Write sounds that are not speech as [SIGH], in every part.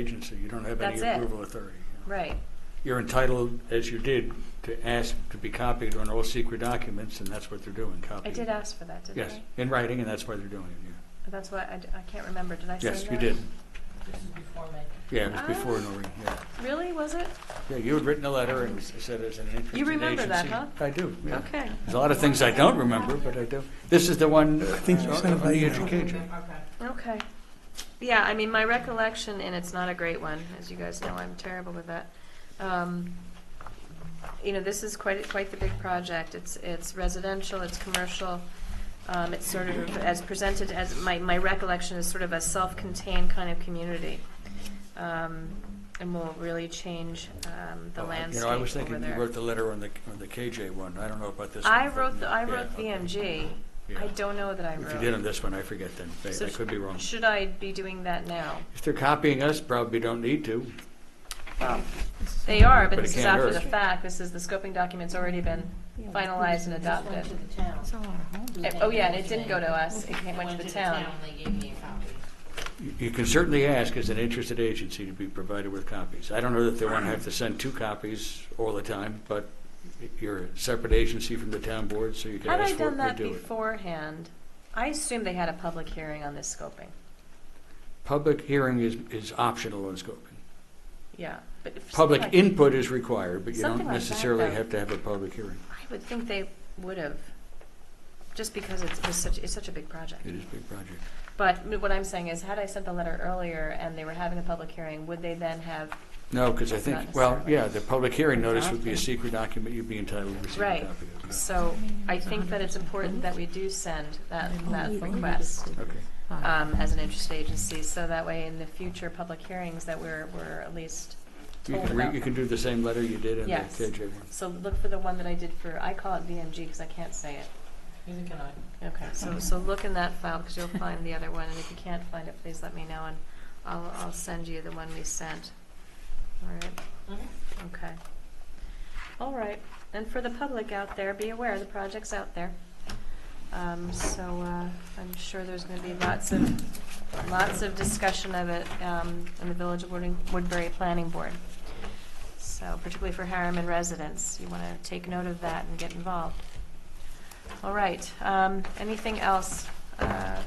agency, you don't have any That's it. approval authority. Right, You're entitled, as you did, to ask to be copied on all secret documents, and that's what they're doing, I copying. did ask for that, didn't I? Yes, in writing, and that's why they're doing it, yeah. That's why, I, d- I can't remember, did I say that? Yes, you did. This is before my. Yeah, it was Ah. before Noreen, yeah. Really, was it? Yeah, you had written a letter and said as an interested agency. remember that, huh? I do, yeah. Okay. There's a lot of things I don't remember, but I do. This is the one uh, think you sent it on by the email. education. Okay. Okay. Yeah, I mean, my recollection, and it's not a great one, as you guys know, I'm terrible with that. Um, You know, this is quite, quite the big project. It's, it's residential, it's commercial. Um, It's sort of, as presented, as, my, my recollection is sort of a self-contained kind of community. Um, And will really change um, the Well, I- landscape You know, I was over thinking you there. wrote the letter on the, on the KJ one. I don't know about this one. I but- wrote, the- I yeah, wrote okay. BMG. I Yeah. don't know that I wrote. If you did on this one, I forget then. I So I could be wrong. Should I be doing that now? If they're copying us, probably don't need to. Well, they are, but But it this is can't after the hurt. fact. This is, the scoping document's already been finalized and adopted. This went to the town. Eh, Oh, yeah, and it didn't go to us. It came, went to the town. They gave me a copy. You- You can certainly ask as an interested agency to be provided with copies. I don't know that they want to have to send two copies all the time, but you're a separate agency from the town board, so you can Had I ask for done it or that do it. beforehand, I assume they had a public hearing on this scoping. Public hearing is, is optional on scoping. Yeah, but if. something Public like- input is required, but you Something don't like that, necessarily though. have to have a public hearing. I would think they would have, just because it's it was such, it's such a big project. It is a big project. But what I'm saying is, had I sent the letter earlier and they were having a public hearing, would they then have No, because I Not think, well, necessarily. yeah, the public hearing notice would be a Exactly. secret document, you'd be entitled to receive a Right. copy of it. So I think that it's important that we do send that, that request Okay. um, as an interested agency, so that way in the future public hearings that we're, we're at least You told can, re- about. you can do the same letter you did in the Yes. KJ one. So look for the one that I did for, I call it VMG because I can't say it. Neither can I. Okay, so, so look in that file because you'll find the other one, and if you can't find it, please let me know, and I'll, I'll send you the one we sent. All right. Okay. Okay. All right, and for the public out there, be aware, the project's out there. Um, so, uh, I'm sure there's gonna be lots of, lots of discussion of it, um, in the Village of Wooding- Woodbury Planning Board. So, particularly for Harriman residents, you wanna take note of that and get involved. All right, um, anything else? Uh,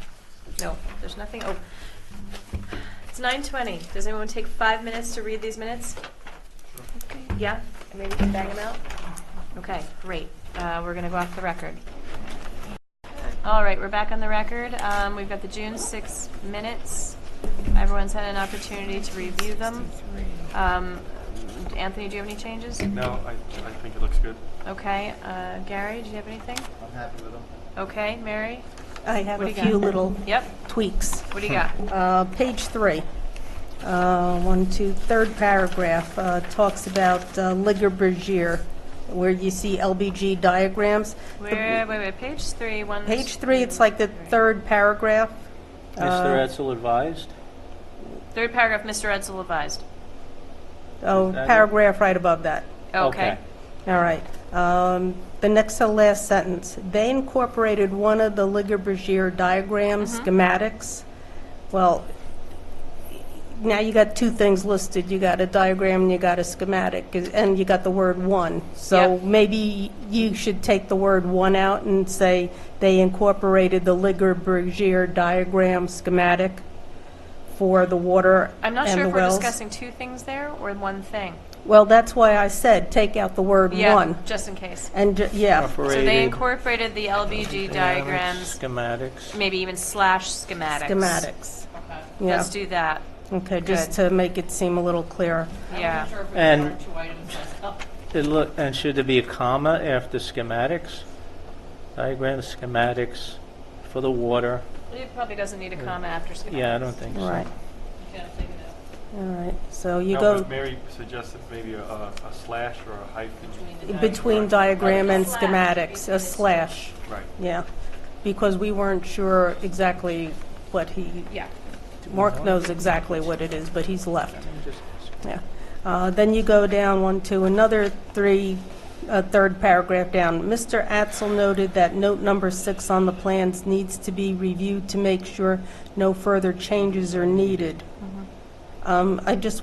no, there's nothing, oh. It's nine twenty, does anyone take five minutes to read these minutes? Yeah, and maybe we can bang them out? Okay, great. Uh, We're going to go off the record. All right, we're back on the record. Um, We've got the June 6 minutes. Everyone's had an opportunity to review them. Um, Anthony, do you have any changes? No, I, I think it looks good. Okay, uh, Gary, do you have anything? I'm happy with them. Okay, Mary? I have What do a you got? few little Yep, tweaks. what do you got? [LAUGHS] Uh, Page three, uh, one, two, third paragraph uh, talks about uh, Liger Bergier, where you see LBG diagrams. The- Where, wait, wait, page three, one. Page three, it's like the third paragraph. Mr. Uh, Edsel advised? Third paragraph, Mr. Edsel advised. Oh, Is that it? paragraph right above that. Okay. All right. Um, The next to last sentence, they incorporated one of the Liger Bergier Mm-hmm. diagrams, schematics. Well, now you got two things listed. You got a diagram and you got a schematic, is- and you got the word "one." So Yep. maybe you should take the word "one" out and say they incorporated the Liger Bergier diagram schematic for the water I'm not and sure the if we're wells. discussing two things there or one thing. Well, that's why I said, take out the word Yeah, "one." just in case. And, ju- So yeah. they Operated incorporated the LBG diagrams, dynamics, Schematics. maybe even slash schematics. Schematics. Okay. Yeah, Let's do that, okay, good. just to make it seem a little clearer. yeah. Sure if we And- want two items that's up. It look, and should there be a comma after schematics? Diagrams, schematics for the water? It probably doesn't need a comma after schematics. Yeah, I don't think so. Right, You oh, gotta take it out all right, so you Now, go was Mary suggested maybe a, a slash or a hyphen. between the between diagram and Slash. schematics, a slash, Right. yeah. Because we weren't sure exactly what he, Yeah, Mark knows exactly what it is, but he's left. Just- Yeah. Uh, Then you go down one to another three, uh, third paragraph down. Mr. Atzel noted that note number six on the plans needs to be reviewed to make sure no further changes are needed. Um, Um, I just